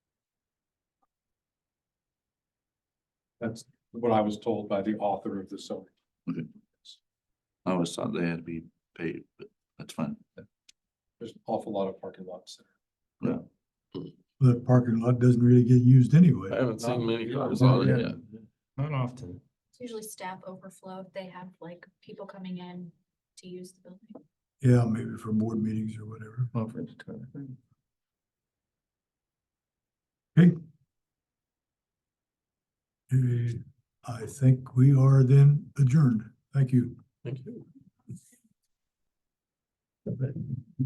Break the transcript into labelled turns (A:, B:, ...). A: That's what I was told by the author of the zoning.
B: I always thought they had to be paid, but that's fine.
A: There's an awful lot of parking lots. there.
C: That parking lot doesn't really get used anyway.
D: I haven't seen many cars
C: Yeah,
D: on it
C: yeah.
D: yet.
E: Not often.
F: It's usually staff overflow if they have like people coming in to use the building.
C: Yeah, maybe for board meetings or whatever.
E: Conference kind of thing.
C: Okay. Eh, I think we are then adjourned. Thank you.
D: Thank you.